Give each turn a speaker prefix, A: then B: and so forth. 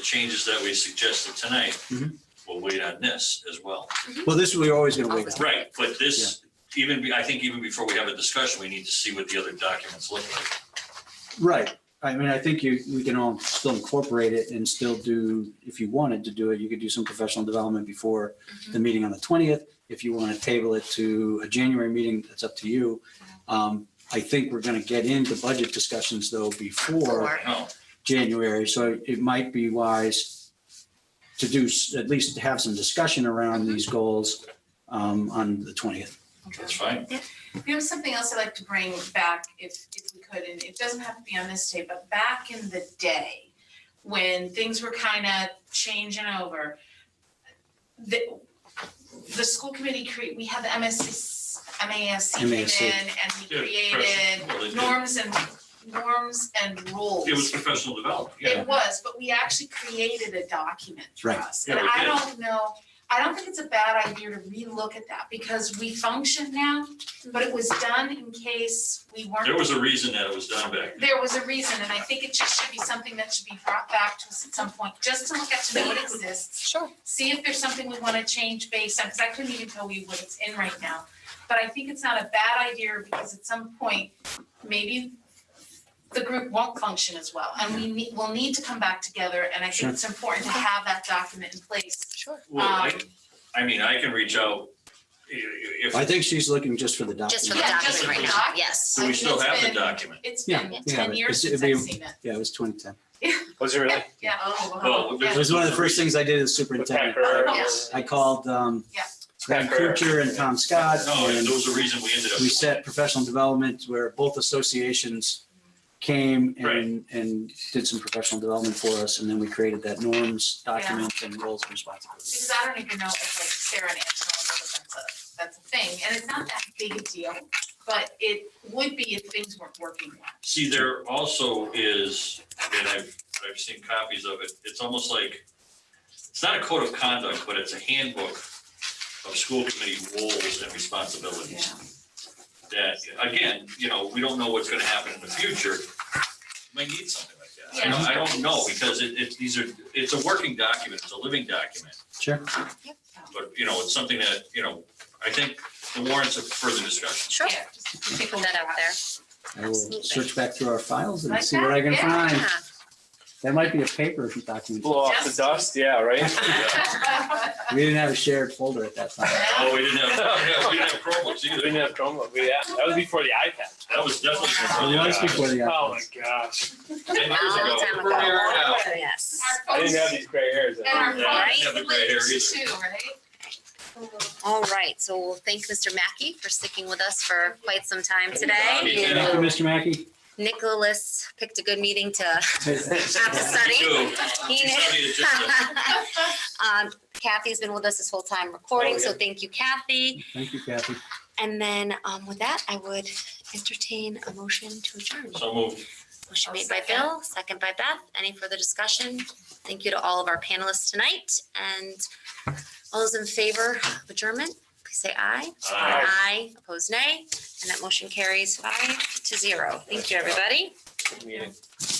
A: the changes that we suggested tonight,
B: Mhm.
A: we'll wait on this as well.
B: Well, this, we're always gonna wait.
C: Awesome.
A: Right, but this, even, be- I think even before we have a discussion, we need to see what the other documents look like.
B: Right. I mean, I think you, we can all still incorporate it and still do, if you wanted to do it, you could do some professional development before the
C: Mm-hmm.
B: meeting on the twentieth. If you want to table it to a January meeting, that's up to you. Um, I think we're gonna get into budget discussions though before
C: Before.
A: I know,
B: January, so it might be wise to do, s- at least have some discussion around
C: Mm-hmm.
B: these goals um, on the twentieth.
A: that's fine.
D: You know, something else I'd like to bring back if, if we could, and it doesn't have to be on this day, but back in the day, when things were kind of changing over, the, the school committee cre, we had the MSC, MASC came
B: MASC.
D: in and we
A: Yeah,
D: created
A: Well, it-
D: norms and, norms and rules.
A: It was professional development, yeah.
D: It was, but we actually created a document for
B: Right.
D: us.
A: Yeah,
D: And
A: we
D: I
A: did.
D: don't know, I don't think it's a bad idea to relook at that because we function now, but it was done in case we weren't.
A: There was a reason that it was done back then.
D: There was a reason, and I think it just should be something that should be brought back to us at some point, just to look at to know it exists.
C: Sure.
D: See if there's something we wanna change based on, because I couldn't even tell you what it's in right now. But I think it's not a bad idea because at some point, maybe the group won't function as well. And we need, we'll need to come back together, and I
B: Sure.
D: think it's important to have that document in place.
C: Sure.
A: Well, I,
D: Um,
A: I mean, I can reach out i- i-
B: I
A: if,
B: think she's looking just for the
C: Just
B: document.
C: for the
D: Yeah,
A: just
C: document
A: for
C: right
A: the
C: now,
D: doc.
C: yes.
A: do we still have the document?
D: It's
B: Yeah,
D: been
B: we have
D: ten
B: it.
D: years
B: It's-
D: since
B: it'd
D: I've
B: be-
D: seen it.
B: Yeah, it was twenty ten.
E: Was it really?
D: Yeah, oh, wow.
A: Well,
D: Yeah.
B: It was one of the first things I did as
E: With
B: superintendent.
E: Packer?
D: Yeah.
B: I called um
D: Yeah.
B: Graham
E: Packer.
B: Kuchar and Tom Scott.
A: No,
B: and
A: there was a reason we ended up.
B: We set professional development where both associations came and and did some professional development for us. And then we created that norms document and roles and responsibilities.
D: Because I don't even know if like Sarah and Angela know that that's a, that's a thing, and it's not that big a deal, but it would be if things weren't working well.
A: See, there also is, and I've, I've seen copies of it, it's almost like, it's not a code of conduct, but it's a handbook of school committee roles and responsibilities. That, again, you know, we don't know what's gonna happen in the future. We Might need something like that. I don't, I don't know, because it, it, these are, it's a working document, it's a living document.
B: Sure.
A: But, you know, it's something that, you know, I think the warrants of further discussion.
C: Sure.
D: Yeah, just
C: Pick
D: take a
C: that out
D: look.
C: there.
B: I will
C: Absolutely.
B: search back through our files and
D: Like
B: see what I can
D: that?
B: find.
C: Yeah.
B: That might be a paper document.
E: Blow off the
D: Just-
E: dust, yeah, right?
B: We didn't have a shared folder at that time.
A: Oh, we didn't have, we didn't have Chromebooks
E: We
A: either.
E: didn't have Chromebook, we, yeah, that was before the iPad.
A: That was definitely.
B: It
A: before the guys.
B: was before the.
E: Oh my gosh,
A: Ten
C: A
A: years
C: long
A: ago.
C: time ago.
D: Yeah.
C: Yes.
E: I
D: Our
E: didn't have
D: phones,
E: these gray hairs.
D: and our
A: Yeah, uh, I didn't have the
D: phones
A: gray hair
D: linked
A: either.
D: too, right?
C: All right, so we'll thank Mr. Mackey for sticking with us for quite some time
A: Thank
C: today.
A: you.
B: Thank you, Mr. Mackey.
C: Nicholas picked a good meeting to have to
A: Me
C: study.
A: too.
C: He
A: She studied it
C: knew.
A: just to-
C: Um, Kathy's been with us this whole time recording,
E: Oh,
C: so
E: yeah.
C: thank you, Kathy.
B: Thank you, Kathy.
C: And then um, with that, I would entertain a motion to adjourn.
A: So moved.
C: Motion
D: I'll
C: made by
D: second.
C: Bill, second by Beth. Any further discussion? Thank you to all of our panelists tonight. And all those in favor of adjournment, please say aye.
A: Aye.
C: Aye, opposed nay, and that motion carries five to zero. Thank you, everybody.
E: Good meeting.